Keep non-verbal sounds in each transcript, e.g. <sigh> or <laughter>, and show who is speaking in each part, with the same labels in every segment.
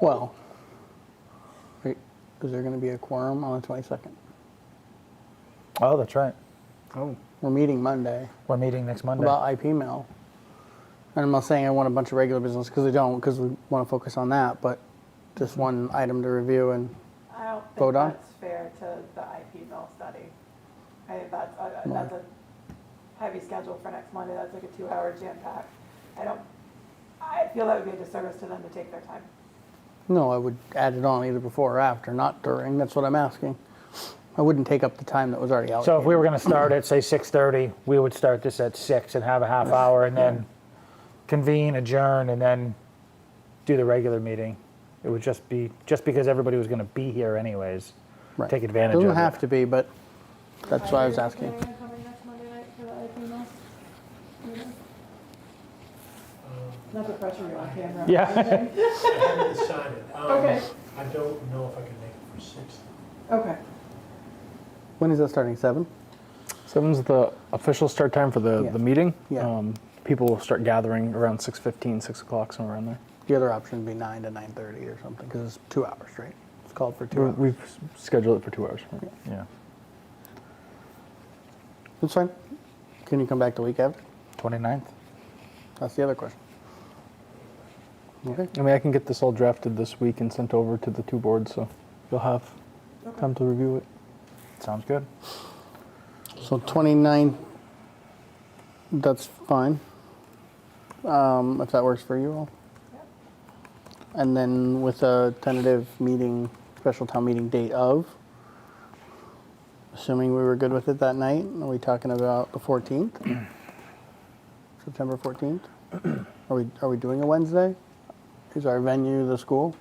Speaker 1: Well, wait, is there going to be a quorum on the 22nd?
Speaker 2: Oh, that's right.
Speaker 1: Oh. We're meeting Monday
Speaker 2: We're meeting next Monday.
Speaker 1: about IP mail. And I'm not saying I want a bunch of regular business because I don't, because we want to focus on that, but just
Speaker 2: Mm-hmm.
Speaker 1: one item to review and,
Speaker 3: I don't think
Speaker 1: Vote on?
Speaker 3: that's fair to the IP mill study. I think that's a, a- that's a heavy schedule for next Monday. That's like a two-hour jam pack. I don't. I feel that would be a disservice to them to take their time.
Speaker 1: no, I would add it on either before or after, not during. That's what I'm asking. I wouldn't take up the time that was already allocated.
Speaker 2: so if we were going to start at say 6:30, we would start this at 6 and have a half hour and then convene, adjourn and then do the regular meeting. It would just be just because everybody was going to be here anyways.
Speaker 1: Right.
Speaker 2: Take advantage
Speaker 1: Doesn't
Speaker 2: of it.
Speaker 1: have to be, but that's why I was asking.
Speaker 3: coming next Monday night for the IP mill? Not the pressure you're on camera. <laughs>
Speaker 2: Yeah.
Speaker 4: Um, I haven't decided. Um,
Speaker 3: Okay.
Speaker 4: I don't know if I can make it for six.
Speaker 3: Okay.
Speaker 1: When is that starting? Seven?
Speaker 5: Seven's the official start time for the,
Speaker 1: Yeah.
Speaker 5: the meeting.
Speaker 1: Yeah.
Speaker 5: Um, people will start gathering around 6.15, 6 o'clock, somewhere around there.
Speaker 1: The other option would be nine to nine thirty or something, because it's two hours, right? It's called for two
Speaker 5: We-
Speaker 1: hours.
Speaker 5: We've s- scheduled it for two hours.
Speaker 2: Yeah.
Speaker 1: That's fine. Can you come back the week after?
Speaker 2: 29th.
Speaker 1: That's the other question. Okay.
Speaker 5: I mean, I can get this all drafted this week and sent over to the two boards, so you'll have time to review it.
Speaker 2: Sounds good.
Speaker 1: So twenty-nine, that's fine. Um, if that works for you all. And then with a tentative meeting, special town meeting date of, assuming we were good with it that night, are we talking about the fourteenth? September fourteenth? Are we, are we doing a Wednesday? Is our venue the school?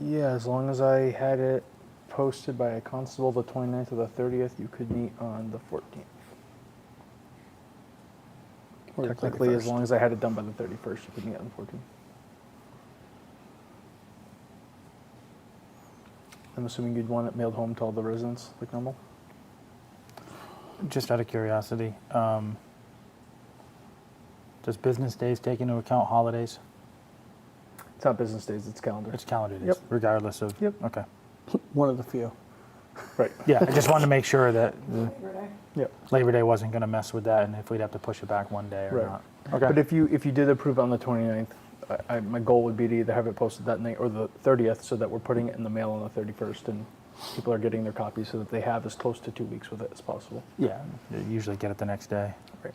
Speaker 5: Yeah, as long as I had it posted by a constable the 29th or the 30th, you could meet on the 14th.
Speaker 1: Or the
Speaker 5: Technically, as
Speaker 1: 31st?
Speaker 5: long as I had it done by the 31st, you could meet on the 14th. I'm assuming you'd want it mailed home to all the residents, like normal?
Speaker 2: Just out of curiosity, um, does business days take into account holidays?
Speaker 5: It's not business days, it's calendar.
Speaker 2: It's calendar days,
Speaker 5: Yep.
Speaker 2: regardless of.
Speaker 5: Yep.
Speaker 2: Okay.
Speaker 1: One of the few.
Speaker 5: Right.
Speaker 2: Yeah, I just wanted to make sure that
Speaker 3: Labor Day.
Speaker 5: Yep.
Speaker 2: Labor Day wasn't going to mess with that, and if we'd have to push it back one day or
Speaker 5: Right.
Speaker 2: not.
Speaker 5: But if you, if you did approve on the 29th, I, I, my goal would be to either have it posted that night or the 30th so that we're putting it in the mail on the 31st and people are getting their copies so that they have as close to two weeks with it as possible.
Speaker 2: Yeah, they usually get it the next day.
Speaker 5: Right.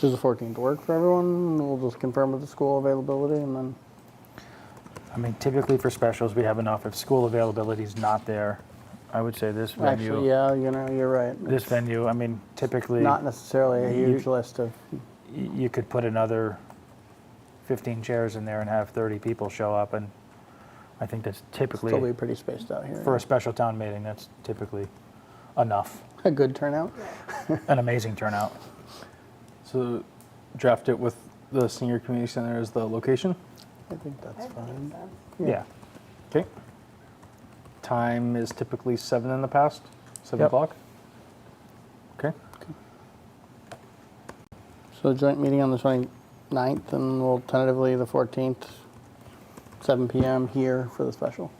Speaker 1: Does the 14th work for everyone? We'll just confirm with the school availability and then,
Speaker 2: I mean, typically for specials, we have enough. If school availability is not there, I would say this venue.
Speaker 1: actually, yeah, you know, you're right.
Speaker 2: This venue, I mean, typically,
Speaker 1: Not necessarily a
Speaker 2: You-
Speaker 1: huge list of,
Speaker 2: y- you could put another 15 chairs in there and have 30 people show up, and I think that's typically,
Speaker 1: still be pretty spaced out here.
Speaker 2: for a special town meeting, that's typically enough.
Speaker 1: A good turnout?
Speaker 2: An amazing turnout.
Speaker 5: So draft it with the senior community center as the location.
Speaker 1: I think
Speaker 3: I
Speaker 1: that's
Speaker 3: think that
Speaker 1: fine.
Speaker 3: makes sense.
Speaker 1: Yeah.
Speaker 2: yeah.
Speaker 5: Okay. Time is typically seven in the past, seven
Speaker 2: Yep.
Speaker 5: o'clock. Okay.
Speaker 1: So joint meeting on the 29th and we'll tentatively the 14th, 7 PM here for the special.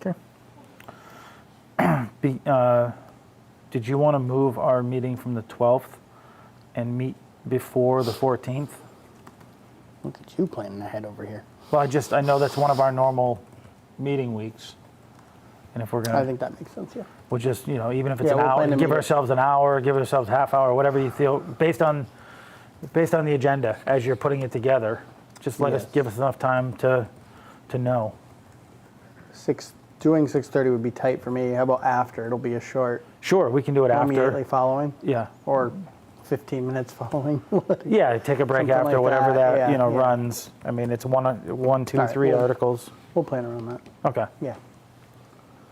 Speaker 2: Okay. <clears throat> Be, uh, did you want to move our meeting from the 12th and meet before the 14th?
Speaker 1: Look at you planning ahead over here.
Speaker 2: Well, I just, I know that's one of our normal meeting weeks. And if we're
Speaker 1: I
Speaker 2: going to,
Speaker 1: think that makes sense, yeah.
Speaker 2: we'll just, you know, even if it's
Speaker 1: Yeah,
Speaker 2: an
Speaker 1: we'll
Speaker 2: hour,
Speaker 1: plan to
Speaker 2: give
Speaker 1: meet it.
Speaker 2: ourselves an hour, give ourselves half hour, whatever you feel, based on, based on the agenda as you're putting it together. Just let us,
Speaker 1: Yes.
Speaker 2: give us enough time to, to know.
Speaker 1: Six, doing 6:30 would be tight for me. How about after? It'll be a short,
Speaker 2: Sure, we can do it
Speaker 1: immediately
Speaker 2: after.
Speaker 1: following
Speaker 2: Yeah.
Speaker 1: or 15 minutes <laughs> following.
Speaker 2: Yeah, take a break
Speaker 1: Something
Speaker 2: after
Speaker 1: like
Speaker 2: whatever
Speaker 1: that,
Speaker 2: that,
Speaker 1: yeah,
Speaker 2: you know
Speaker 1: yeah.
Speaker 2: runs. I mean, it's one, one, two,
Speaker 1: All right,
Speaker 2: three
Speaker 1: well-
Speaker 2: articles.
Speaker 1: We'll plan around that.
Speaker 2: Okay.
Speaker 1: Yeah.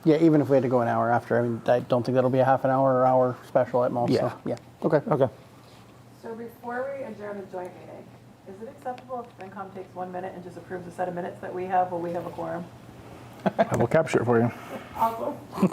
Speaker 1: Yeah, even if we had to go an hour after, I mean, I don't think that'll be a half an hour or hour special at most. so,
Speaker 2: Yeah.
Speaker 1: yeah. Okay.
Speaker 2: Okay.
Speaker 3: So before we adjourn the joint meeting, is it acceptable if FinCom takes one minute and just approves a set of minutes that we have while we have a quorum?
Speaker 5: I will capture it for you.
Speaker 3: Awesome.